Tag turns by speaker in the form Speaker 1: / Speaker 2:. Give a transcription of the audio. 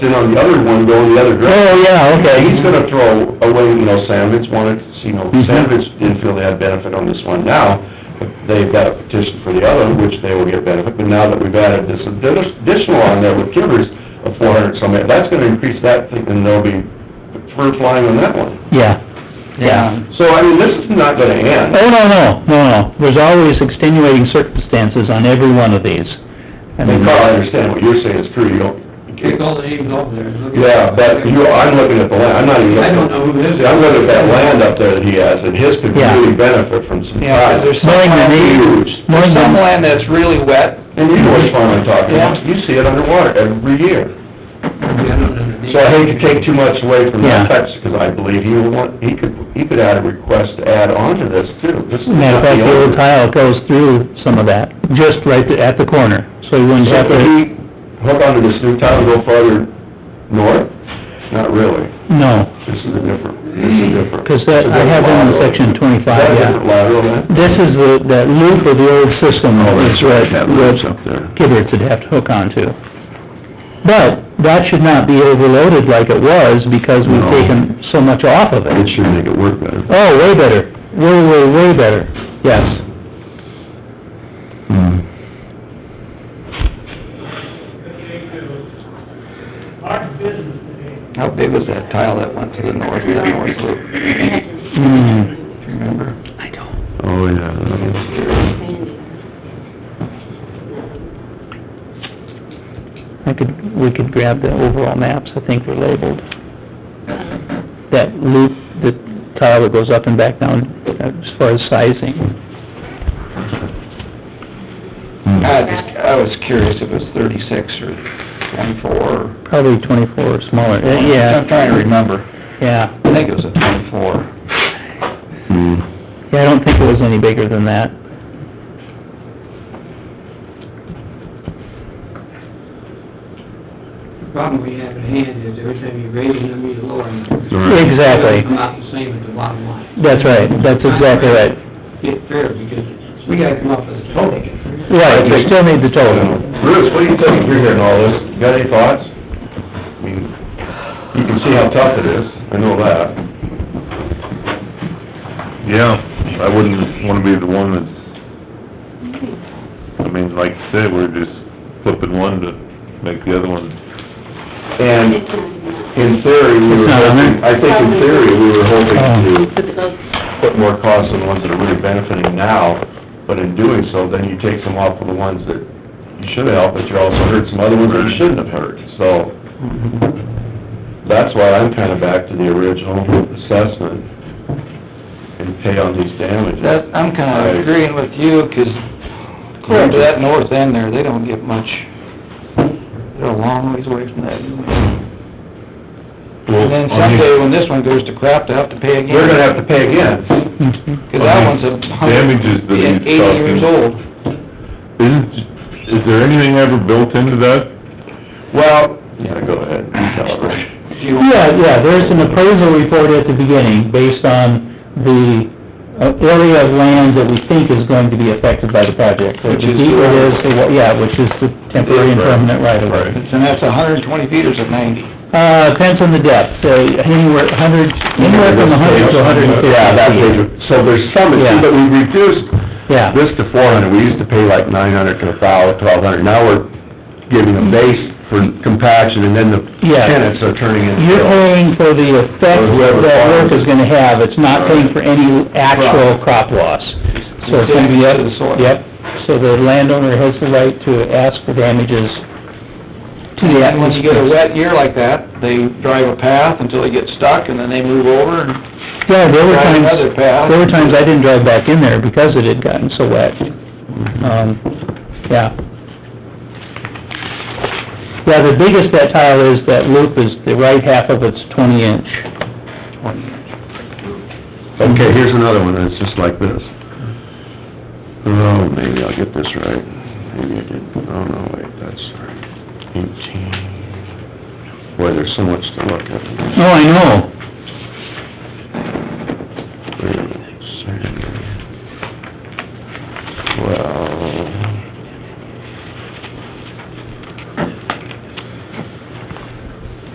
Speaker 1: then on the other one, go the other direction.
Speaker 2: Oh, yeah, okay.
Speaker 1: He's gonna throw away, you know, Sandvits wanted, you know,
Speaker 2: Mhm.
Speaker 1: Sandvits didn't feel they had benefit on this one now. but They've got a petition for the other, which they will get benefit, but now that we've added this additional on there with Kivers of four hundred some, that's gonna increase that, thinking there'll be fur flying on that one.
Speaker 2: Yeah, yeah.
Speaker 1: So, I mean, this is not gonna end.
Speaker 2: Oh, no, no, no, no, there's always extenuating circumstances on every one of these. I
Speaker 1: I
Speaker 2: mean,
Speaker 1: mean, Carl, I understand what you're saying is true, you don't,
Speaker 3: Take all the names off there. Look
Speaker 1: yeah,
Speaker 3: at-
Speaker 1: but you, I'm looking at the land, I'm not even
Speaker 3: I
Speaker 1: looking.
Speaker 3: don't know who this is.
Speaker 1: I'm looking at that land up there that he has, and his could
Speaker 2: Yeah.
Speaker 1: really benefit from some
Speaker 4: Yeah, 'cause
Speaker 1: tile.
Speaker 4: there's
Speaker 2: Knowing
Speaker 4: some
Speaker 2: the
Speaker 4: land,
Speaker 2: need,
Speaker 1: Huge.
Speaker 2: knowing
Speaker 4: there's some
Speaker 2: the,
Speaker 4: land that's really wet,
Speaker 1: And you know which farm I'm talking about,
Speaker 4: Yeah.
Speaker 1: you see it underwater every year.
Speaker 3: Yeah, I don't understand.
Speaker 1: So I hate to take too much away from
Speaker 2: Yeah.
Speaker 1: that text, because I believe he will want, he could, he could add a request to add on to this too. This is not
Speaker 2: matter of fact, the old
Speaker 1: only-
Speaker 2: tile goes through some of that, just right there at the corner, so you wouldn't
Speaker 1: So
Speaker 2: have
Speaker 1: if
Speaker 2: to,
Speaker 1: he hook onto this new tile and go farther north, not really.
Speaker 2: no.
Speaker 1: This is a different, this is a different.
Speaker 2: 'Cause that- I have one in section 25,
Speaker 1: Is that a
Speaker 2: yeah.
Speaker 1: different lateral then?
Speaker 2: This is the, that loop of the old system
Speaker 1: Oh,
Speaker 2: is what, what
Speaker 1: up there.
Speaker 2: Kibberts would have to hook onto. But that should not be overloaded like it was because we've
Speaker 1: No.
Speaker 2: taken so much off of
Speaker 1: It
Speaker 2: it.
Speaker 1: should make it work better.
Speaker 2: Oh, way better, way, way, way better, yes.
Speaker 1: Hmm.
Speaker 4: how big was that tile that went to the north, the north loop?
Speaker 2: Hmm.
Speaker 4: Remember?
Speaker 1: Oh, yeah. that was-
Speaker 2: I could, we could grab the overall maps, I think were labeled. That loop, the tile that goes up and back down uh, as far as sizing. Hmm.
Speaker 4: I just, I was curious if it was thirty-six or twenty-four, or-
Speaker 2: Probably twenty-four or smaller, Uh, yeah,
Speaker 4: I'm trying to remember,
Speaker 2: yeah.
Speaker 4: I think it was a twenty-four.
Speaker 1: Hmm.
Speaker 2: Yeah, I don't think it was any bigger than that.
Speaker 3: The problem we have at hand is every time you raise them, you lower them.
Speaker 1: Right.
Speaker 2: Exactly,
Speaker 3: Come out the same at the bottom line.
Speaker 2: that's right, that's exactly right.
Speaker 3: Get fair, because we gotta come up with a total.
Speaker 2: Right, you still need the total.
Speaker 1: Bruce, what do you think, you're hearing all this, you got any thoughts? I mean, you can see how tough it is, I know that.
Speaker 5: Yeah, I wouldn't wanna be the one that's, I mean, like you said, we're just flipping one to make the other one.
Speaker 1: And in theory, we were
Speaker 2: It's not on
Speaker 1: hoping, I think in theory, we were hoping to
Speaker 2: Oh.
Speaker 1: put more costs on the ones that are really benefiting now, but in doing so, then you take some off of the ones that you should have helped, but you also hurt some other ones that you shouldn't have hurt, so. That's why I'm kinda back to the original assessment and pay on these damages.
Speaker 4: That, I'm
Speaker 1: Right.
Speaker 4: kinda agreeing with you, 'cause clear to that north end there, they don't get much, they're a long ways away from that. And then someday, when this one goes to crap, they'll have to pay again.
Speaker 1: We're gonna have to pay again.
Speaker 2: Mhm.
Speaker 4: 'Cause that one's a hundred
Speaker 5: Damages that
Speaker 4: and
Speaker 5: he's
Speaker 4: eighty years
Speaker 5: talking,
Speaker 4: old.
Speaker 5: isn't, is there anything ever built into that?
Speaker 1: Well, yeah, go ahead, and tell her.
Speaker 2: Yeah, yeah, there's an appraisal report at the beginning based on the uh, area of land that we think is going to be affected by the project. Which
Speaker 4: is-
Speaker 2: It is, the wa- yeah, which is the temporary and permanent right of way.
Speaker 1: Right.
Speaker 4: And that's a hundred and twenty feet or is it ninety?
Speaker 2: Uh, depends on the depth, uh, anywhere, hundred, anywhere from a hundred to a hundred and fifty.
Speaker 1: Yeah, that was, so there's some,
Speaker 2: Yeah.
Speaker 1: but we reduced
Speaker 2: Yeah.
Speaker 1: this to four hundred, we used to pay like nine hundred to a thousand, twelve hundred, now we're giving a base for compaction, and then the
Speaker 2: Yeah.
Speaker 1: tenants are turning in.
Speaker 2: You're paying for the effect
Speaker 1: Or whoever
Speaker 2: that work
Speaker 1: farms.
Speaker 2: is gonna have, it's not paying for any actual crop loss. So it's gonna be up,
Speaker 4: Damage to the soil.
Speaker 2: yep, so the landowner has the right to ask for damages to the
Speaker 4: And when you get a
Speaker 2: atmosphere.
Speaker 4: wet year like that, they drive a path until they get stuck and then they move over and
Speaker 2: Yeah, there were
Speaker 4: drive
Speaker 2: times,
Speaker 4: another path.
Speaker 2: there were times I didn't drive back in there because it had gotten so wet.
Speaker 4: Mm-hmm.
Speaker 2: Um, yeah. Yeah, the biggest that tile is, that loop is, the right half of it's twenty inch.
Speaker 1: Okay, here's another one, it's just like this. Oh, maybe I'll get this right, maybe I did, oh, no, wait, that's eighteen. Boy, there's so much to look at.
Speaker 2: Oh, I know.